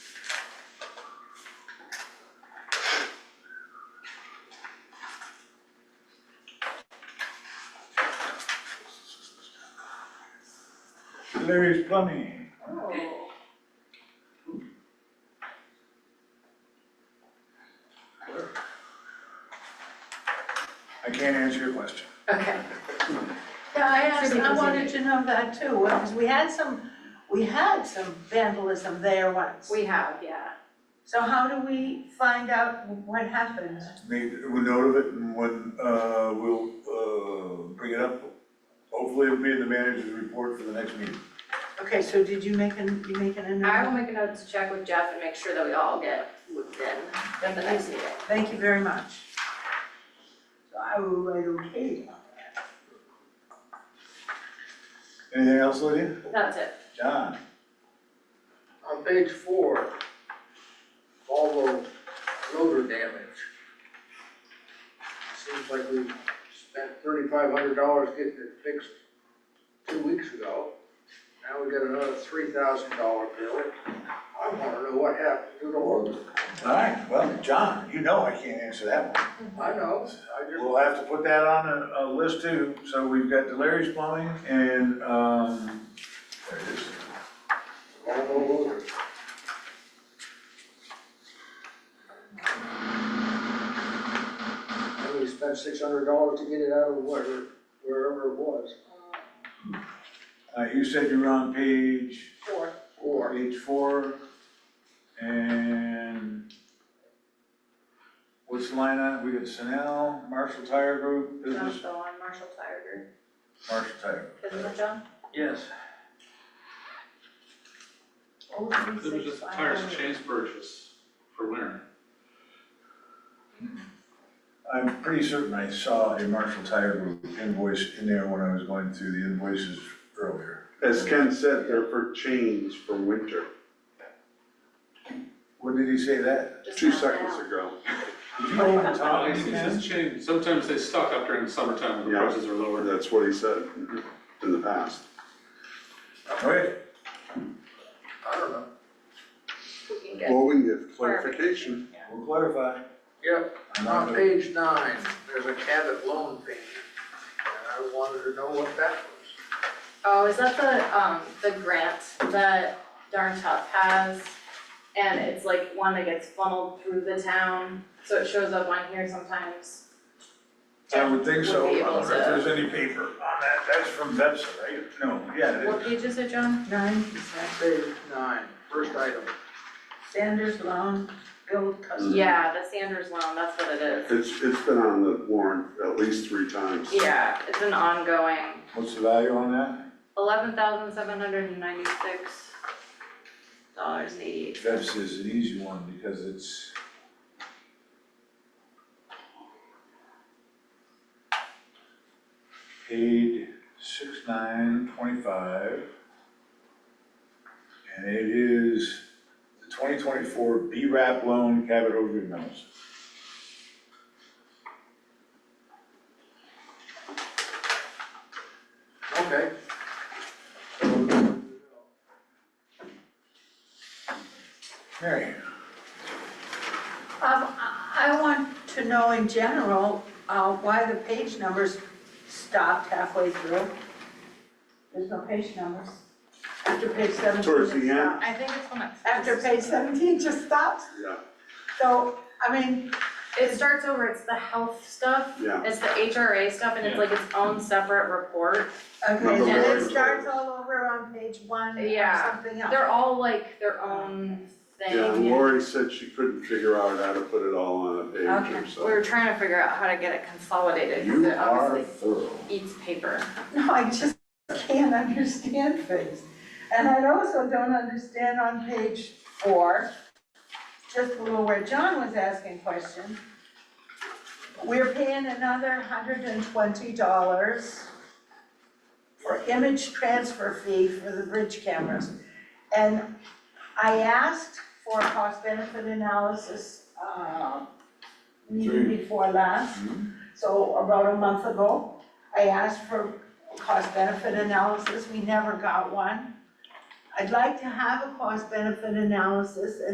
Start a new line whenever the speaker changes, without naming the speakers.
Larry's Plumbing.
Oh.
I can't answer your question.
Okay.
Yeah, I asked,
Pretty
I
busy.
wanted to know that too, because we had some, we had some vandalism there once.
We have, yeah.
So how do we find out what happened?
Made a note of it and when, uh, we'll, uh, bring it up. Hopefully it'll be in the manager's report for the next meeting.
Okay, so did you make an, you make an
I will
announcement?
make a note to check with Jeff and make sure that we all get looped in at the next meeting.
Thank you very much. So I will write okay on that.
Anything else, Lydia?
That's it.
John?
On page four, Volvo loader damage. Seems like we spent thirty-five hundred dollars getting it fixed two weeks ago. Now we got another three thousand dollar bill. I wanna know what happened to the loader.
All right, well, John, you know I can't answer that one.
I know, I just,
We'll have to put that on a, a list too. So we've got the Larry's Plumbing and, um, there it is.
Volvo loader. And we spent six hundred dollars to get it out of wherever, wherever it was.
Uh, you said you were on page?
Sure.
Or
Page four, and what's the line on, it? we got Sunel, Marshall Tire Group,
John's
business,
still on Marshall Tire Group.
Marshall Tire.
Isn't it John?
Yes.
Oh, three,
There was
six,
a
five,
tires
oh.
and chains purchase for winter.
I'm pretty certain I saw a Marshall Tire Group invoice in there when I was going through the invoices earlier.
As Ken said, they're for change for winter,
When did he say that?
Just
two
not
seconds
now.
ago.
Did you know when
Oh,
Tom
it's- it's chain- sometimes they stock up during the summertime when the
Yeah.
prices are lower.
That's what he said in the past.
Okay,
I don't know.
We can get
Well, we can get clarification.
we'll clarify.
Yep,
I'm not
on
gonna-
page nine, there's a Cabot loan payment, and I wanted to know what that was.
Oh, is that the, um, the grant that Darn Tough has? And it's like one that gets funneled through the town, so it shows up on here sometimes.
I would think so,
We'll
I
be able
don't know if
to-
there's any paper on that, that's from Vepsa, right? No, yeah, it
What
is.
page is it, John?
Nine, percent.
Page nine, first item.
Sanders loan, build custom.
Yeah, the Sanders loan, that's what it is.
It's, it's been on the warrant at least three times.
Yeah, it's an ongoing,
What's the value on that?
eleven thousand seven hundred and ninety-six dollars eighty-eight.
Vepsa is an easy one because it's paid six nine twenty-five. And it is the twenty twenty-four B-RAP loan Cabot Overview notes.
Okay,
Mary,
Um, I, I want to know in general, uh, why the page numbers stopped halfway through. There's no page numbers. After page seventeen.
Towards the
it
end.
stopped.
I think it's when it.
After page seventeen just stops,
Yeah,
so, I mean,
It starts over, it's the health stuff,
yeah.
it's the HRA stuff, and it's like its own separate report.
okay,
Number
and it
one.
starts all over on page one or
Yeah.
something else.
They're all like their own thing.
Yeah, and Lori said she couldn't figure out how to put it all on a page
Okay,
or
we were
so.
trying to figure out how to get it consolidated, because
you
it
are
obviously
thorough.
eats paper.
No, I just can't understand things. And I also don't understand on page four, just below where John was asking questions. We're paying another hundred and twenty dollars for image transfer fee for the bridge cameras. And I asked for a cost benefit analysis, uh, meeting
Three.
before last, so about a month ago. I asked for cost benefit analysis, we never got one. I'd like to have a cost benefit analysis and